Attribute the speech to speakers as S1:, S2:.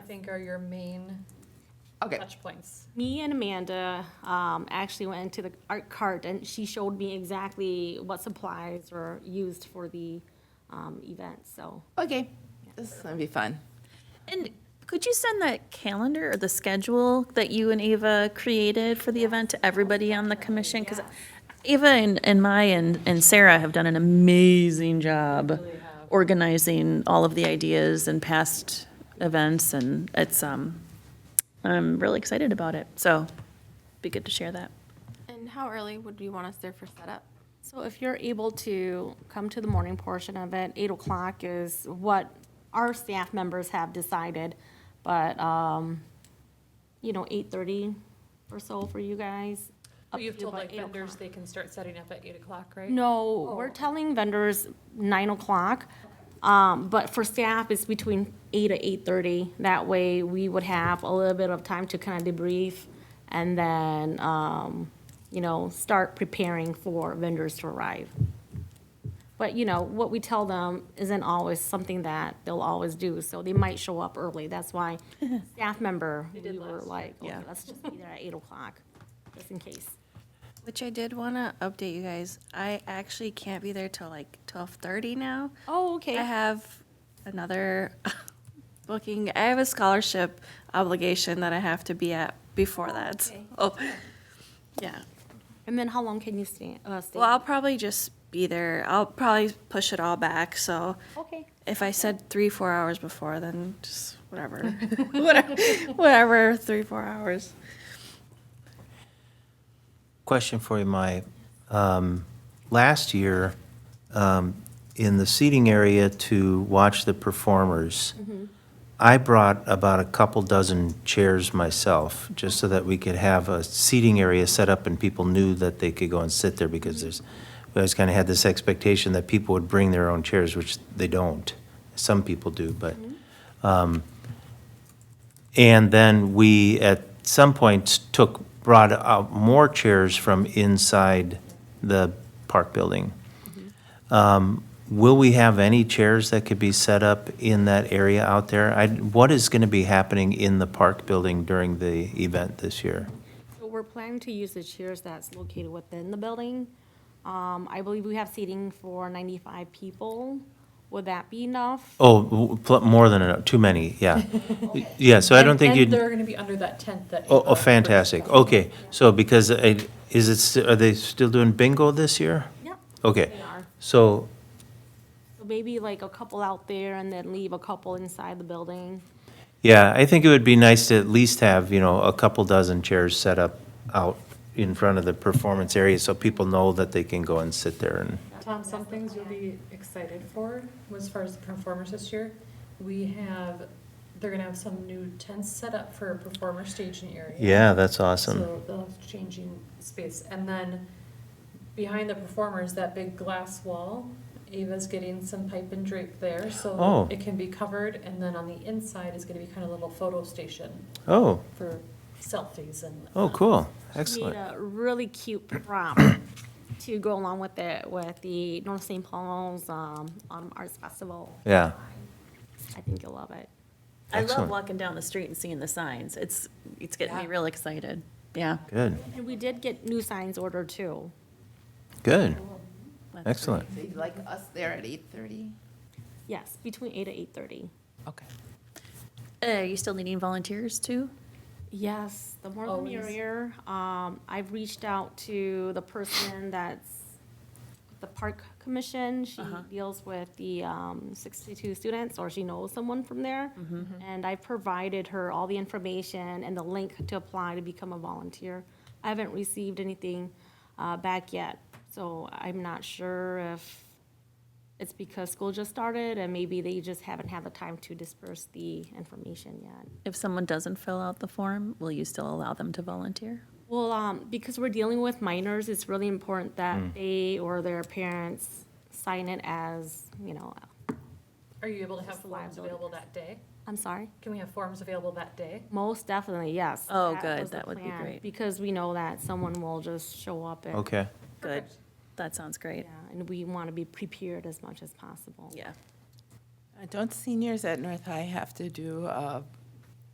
S1: think are your main
S2: Okay,
S1: touch points?
S3: Me and Amanda um, actually went into the art cart, and she showed me exactly what supplies were used for the um, event, so.
S2: okay, this is gonna be fun.
S4: And could you send that calendar or the schedule that you and Ava created for the event to everybody on the commission? Because Ava and, and Mai and, and Sarah have done an amazing job organizing all of the ideas and past events, and it's, um, I'm really excited about it, so be good to share that.
S5: And how early would you want us there for setup?
S3: So if you're able to come to the morning portion of it, eight o'clock is what our staff members have decided, but, um, you know, eight-thirty or so for you guys. up
S1: You've
S3: to
S1: told
S3: about
S1: like
S3: 8
S1: vendors
S3: o'clock.
S1: they can start setting up at eight o'clock, right?
S3: No, we're telling vendors nine o'clock, um, but for staff, it's between eight to eight-thirty. That way, we would have a little bit of time to kind of debrief and then, um, you know, start preparing for vendors to arrive. But, you know, what we tell them isn't always something that they'll always do, so they might show up early. That's why staff member, we were like, okay,
S4: Yeah.
S3: let's just be there at eight o'clock, just in case.
S5: Which I did want to update you guys. I actually can't be there till like twelve thirty now.
S3: Oh, okay.
S5: I have another booking. I have a scholarship obligation that I have to be at before that. Oh, yeah.
S3: And then how long can you stay? uh, stay?
S5: Well, I'll probably just be there. I'll probably push it all back. So
S3: Okay.
S5: if I said three, four hours before, then just whatever, whatever, whatever, three, four hours.
S6: Question for you, Mai. Um, Last year, um, in the seating area to watch the performers, I brought about a couple dozen chairs myself, just so that we could have a seating area set up and people knew that they could go and sit there because there's, we always kind of had this expectation that people would bring their own chairs, which they don't. Some people do, but. And then we, at some point, took, brought out more chairs from inside the park building.
S1: Mm-hmm.
S6: Um, Will we have any chairs that could be set up in that area out there? I, what is going to be happening in the park building during the event this year?
S3: So we're planning to use the chairs that's located within the building. Um, I believe we have seating for ninety-five people. Would that be enough?
S6: Oh, w- pl- more than enough, too many, yeah. Yeah, so I don't think you'd.
S1: And they're gonna be under that tent that.
S6: Oh,
S1: Ava
S6: oh, fantastic.
S1: purchased.
S6: Okay, so because it, is it, st- are they still doing bingo this year?
S3: Yep.
S6: Okay,
S3: They are.
S6: so,
S3: So maybe like a couple out there and then leave a couple inside the building.
S6: yeah, I think it would be nice to at least have, you know, a couple dozen chairs set up out in front of the performance area so people know that they can go and sit there and,
S1: Tom, some things you'll be excited for as far as the performers this year. We have, they're gonna have some new tents set up for a performer staging area.
S6: yeah, that's awesome.
S1: So they'll have changing space. And then behind the performers, that big glass wall, Ava's getting some pipe and drape there, so
S6: Oh.
S1: it can be covered. And then on the inside is gonna be kind of a little photo station
S6: Oh,
S1: for selfies and.
S6: oh, cool,
S3: We Need
S6: excellent.
S3: a really cute prop to go along with it, with the North St. Paul's, um, Autumn Arts Festival.
S6: Yeah,
S3: I think you'll love it.
S4: I love
S6: Excellent.
S4: walking down the street and seeing the signs. It's, it's getting me
S1: Yeah.
S4: real excited. Yeah.
S6: good,
S3: And we did get new signs ordered too.
S6: good,
S4: That's
S6: excellent.
S2: So you'd like us there at eight thirty?
S3: Yes, between eight to eight-thirty.
S2: Okay.
S4: Uh, Are you still needing volunteers too?
S3: Yes, the more the
S1: Always.
S3: merrier. Um, I've reached out to the person that's the park commission. She deals with the, um, sixty-two students, or she knows someone from there. And I provided her all the information and the link to apply to become a volunteer. I haven't received anything, uh, back yet, so I'm not sure if it's because school just started and maybe they just haven't had the time to disperse the information yet.
S4: If someone doesn't fill out the form, will you still allow them to volunteer?
S3: Well, um, because we're dealing with minors, it's really important that they or their parents sign it as, you know,
S1: Are you able to have
S3: Just the
S1: forms
S3: liability.
S1: available that day?
S3: I'm sorry.
S1: Can we have forms available that day?
S3: Most definitely, yes.
S4: Oh, good.
S3: was the
S4: That would be
S3: plan,
S4: great.
S3: Because we know that someone will just show up and.
S6: Okay,
S4: Good.
S1: Perfect.
S4: That sounds great.
S3: Yeah, and we want to be prepared as much as possible.
S4: Yeah.
S7: Uh, Don't seniors at North High have to do a